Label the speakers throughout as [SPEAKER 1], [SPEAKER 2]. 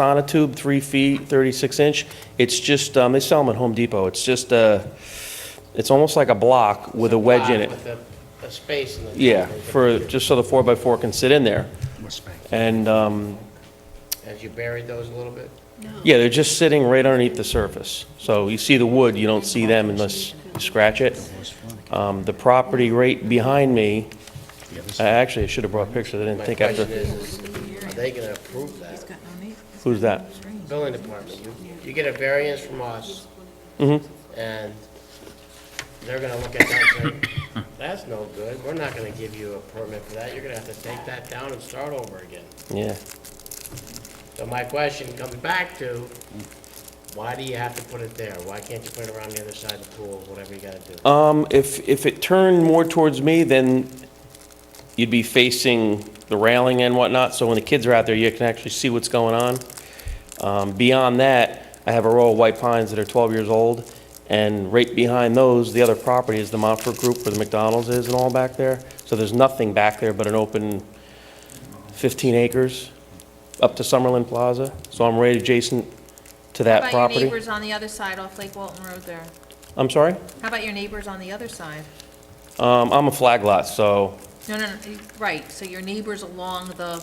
[SPEAKER 1] sonotube, three feet, 36 inch. It's just, um, they sell them at Home Depot. It's just, uh, it's almost like a block with a wedge in it.
[SPEAKER 2] With a- a space in the.
[SPEAKER 1] Yeah, for, just so the four by four can sit in there. And, um,
[SPEAKER 2] As you buried those a little bit?
[SPEAKER 1] yeah, they're just sitting right underneath the surface. So you see the wood, you don't see them unless you scratch it. Um, the property right behind me, uh, actually, I should have brought pictures, I didn't think
[SPEAKER 2] My question
[SPEAKER 1] after.
[SPEAKER 2] is, is are they gonna approve that?
[SPEAKER 1] Who's that?
[SPEAKER 2] Building department, you, you get a variance from us.
[SPEAKER 1] Mm-hmm.
[SPEAKER 2] And they're gonna look at that and say, that's no good, we're not gonna give you a permit for that, you're gonna have to take that down and start over again.
[SPEAKER 1] Yeah.
[SPEAKER 2] So my question comes back to, why do you have to put it there? Why can't you put it around the other side of the pool, whatever you gotta do?
[SPEAKER 1] Um, if, if it turned more towards me, then you'd be facing the railing and whatnot, so when the kids are out there, you can actually see what's going on. Um, beyond that, I have a row of white pines that are twelve years old, and right behind those, the other property is the Montfort Group where the McDonald's is and all back there. So there's nothing back there but an open fifteen acres up to Summerlin Plaza, so I'm right adjacent to that
[SPEAKER 3] How about your
[SPEAKER 1] property.
[SPEAKER 3] neighbors on the other side off Lake Walton Road there?
[SPEAKER 1] I'm sorry?
[SPEAKER 3] How about your neighbors on the other side?
[SPEAKER 1] Um, I'm a flag lot, so
[SPEAKER 3] No, no, no, you- right, so your neighbors along the,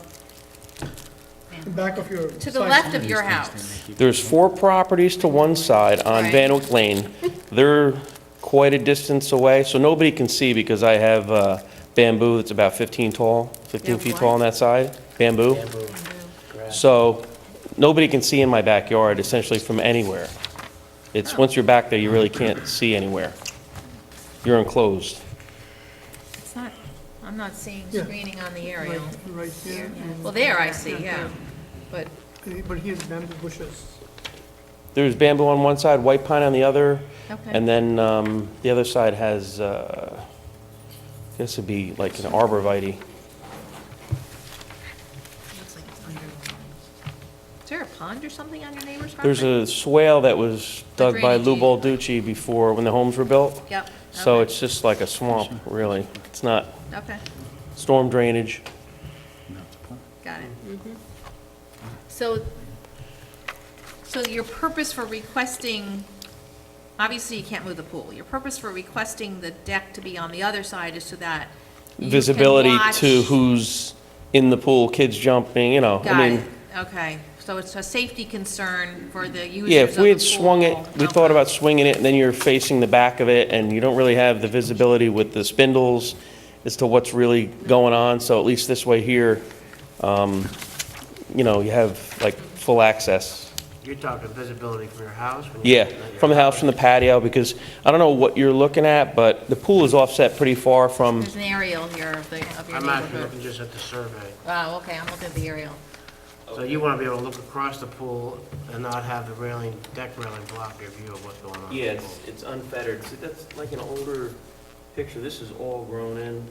[SPEAKER 4] Back of your.
[SPEAKER 3] to the
[SPEAKER 4] side.
[SPEAKER 3] left of your house.
[SPEAKER 1] There's four properties to one side on
[SPEAKER 3] Right.
[SPEAKER 1] Van Oak Lane. They're quite a distance away, so nobody can see because I have uh, bamboo that's about 15 tall, 15
[SPEAKER 3] have
[SPEAKER 1] feet
[SPEAKER 3] what?
[SPEAKER 1] tall on that side, bamboo.
[SPEAKER 2] Bamboo, grass.
[SPEAKER 1] So nobody can see in my backyard essentially from anywhere. It's, once you're back there, you really can't see anywhere. You're enclosed.
[SPEAKER 3] It's not, I'm not seeing
[SPEAKER 4] Yeah.
[SPEAKER 3] screening on the
[SPEAKER 4] Right,
[SPEAKER 3] aerial.
[SPEAKER 4] right here. and-
[SPEAKER 3] Well, there I see, yeah, but,
[SPEAKER 4] Uh, But here's bamboo bushes.
[SPEAKER 1] There's bamboo on one side, white pine on the other,
[SPEAKER 3] okay.
[SPEAKER 1] and then um, the other side has, uh, I guess it'd be like an arborvitae.
[SPEAKER 3] Is there a pond or something on your neighbor's
[SPEAKER 1] There's
[SPEAKER 3] property?
[SPEAKER 1] a swale that was
[SPEAKER 3] The
[SPEAKER 1] dug by Lou
[SPEAKER 3] drainage.
[SPEAKER 1] Balducci before, when the homes were built.
[SPEAKER 3] Yep.
[SPEAKER 1] So
[SPEAKER 3] okay,
[SPEAKER 1] it's just like a swamp, really. It's not
[SPEAKER 3] Okay,
[SPEAKER 1] storm drainage.
[SPEAKER 3] got it. So, so your purpose for requesting, obviously you can't move the pool. Your purpose for requesting the deck to be on the other side is so that you can
[SPEAKER 1] Visibility to
[SPEAKER 3] watch-
[SPEAKER 1] who's in the pool, kids jumping, you know, I
[SPEAKER 3] Got
[SPEAKER 1] mean.
[SPEAKER 3] it, okay. So it's a safety concern for the users of the pool.
[SPEAKER 1] Yeah, if we had swung it, we thought about swinging it, and then you're facing the back of it, and you don't really have the visibility with the spindles as to what's really going on, so at least this way here, um, you know, you have like full access.
[SPEAKER 2] You're talking visibility from your house? when you're
[SPEAKER 1] Yeah,
[SPEAKER 2] looking at your
[SPEAKER 1] from the house, from the patio, because I don't know what you're looking at, but the pool is offset pretty far from,
[SPEAKER 3] There's an aerial here of the, of your
[SPEAKER 2] I'm actually looking
[SPEAKER 3] neighborhood.
[SPEAKER 2] just at the survey.
[SPEAKER 3] Wow, okay, I'm looking at the aerial.
[SPEAKER 2] So you want to be able to look across the pool and not have the railing, deck railing block your view of what's going on. in the
[SPEAKER 1] Yeah,
[SPEAKER 2] pool.
[SPEAKER 1] it's, it's unfettered. See, that's like an older picture. This is all grown in.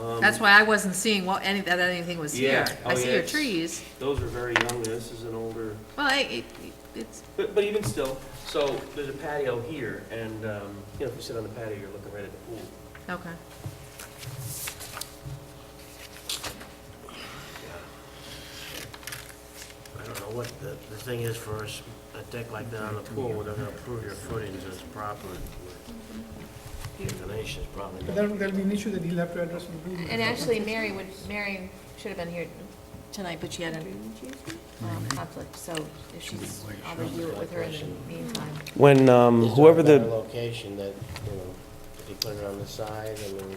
[SPEAKER 1] Um,
[SPEAKER 3] That's why I wasn't seeing what, any, that anything was here.
[SPEAKER 1] Yeah, oh
[SPEAKER 3] I see
[SPEAKER 1] yeah,
[SPEAKER 3] your
[SPEAKER 1] it's-
[SPEAKER 3] trees.
[SPEAKER 1] Those are very young. This is an older,
[SPEAKER 3] Well, I- it, it's,
[SPEAKER 1] but, but even still, so there's a patio here and, um, you know, if you sit on the patio, you're looking right at the pool.
[SPEAKER 3] okay.
[SPEAKER 2] I don't know what the, the thing is for us, a deck like that on the pool, we're going to approve your footings as proper. The inclination is probably
[SPEAKER 4] But
[SPEAKER 2] not.
[SPEAKER 4] There'll, there'll be an issue that he'll have to address. with Google.
[SPEAKER 3] And actually, Mary would, Mary should have been here tonight, but she had a um, conflict, so if she's, I'll review it with her in the meantime.
[SPEAKER 1] When, um,
[SPEAKER 2] Is there a
[SPEAKER 1] whoever
[SPEAKER 2] better
[SPEAKER 1] the,
[SPEAKER 2] Location that, you know, if you put it on the side, I mean,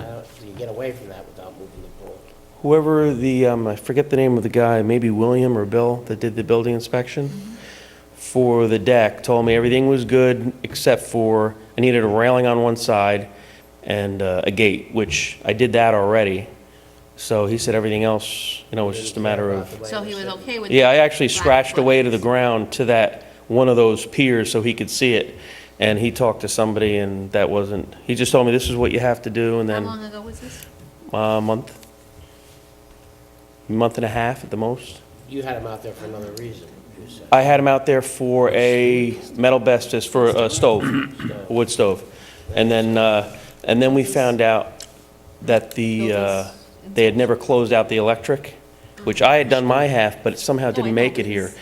[SPEAKER 2] I don't, you get away from that without moving the pool.
[SPEAKER 1] whoever the, um, I forget the name of the guy, maybe William or Bill, that did the building inspection for the deck, told me everything was good except for I needed a railing on one side and uh, a gate, which I did that already. So he said everything else, you know, was just a matter of
[SPEAKER 3] So he was okay with.
[SPEAKER 1] Yeah, I
[SPEAKER 3] the
[SPEAKER 1] actually
[SPEAKER 3] black
[SPEAKER 1] scratched away to the
[SPEAKER 3] footings.
[SPEAKER 1] ground to that, one of those piers so he could see it. And he talked to somebody and that wasn't, he just told me this is what you have to do and
[SPEAKER 3] How
[SPEAKER 1] then
[SPEAKER 3] long ago was this?
[SPEAKER 1] a month, month and a half at the most.
[SPEAKER 2] You had him out there for another reason, you said.
[SPEAKER 1] I had him out there for a metal bestest for a stove, a wood stove. And then, uh, and then we found out that the, uh, they had never closed out the electric, which I had done my half, but it somehow didn't make it here.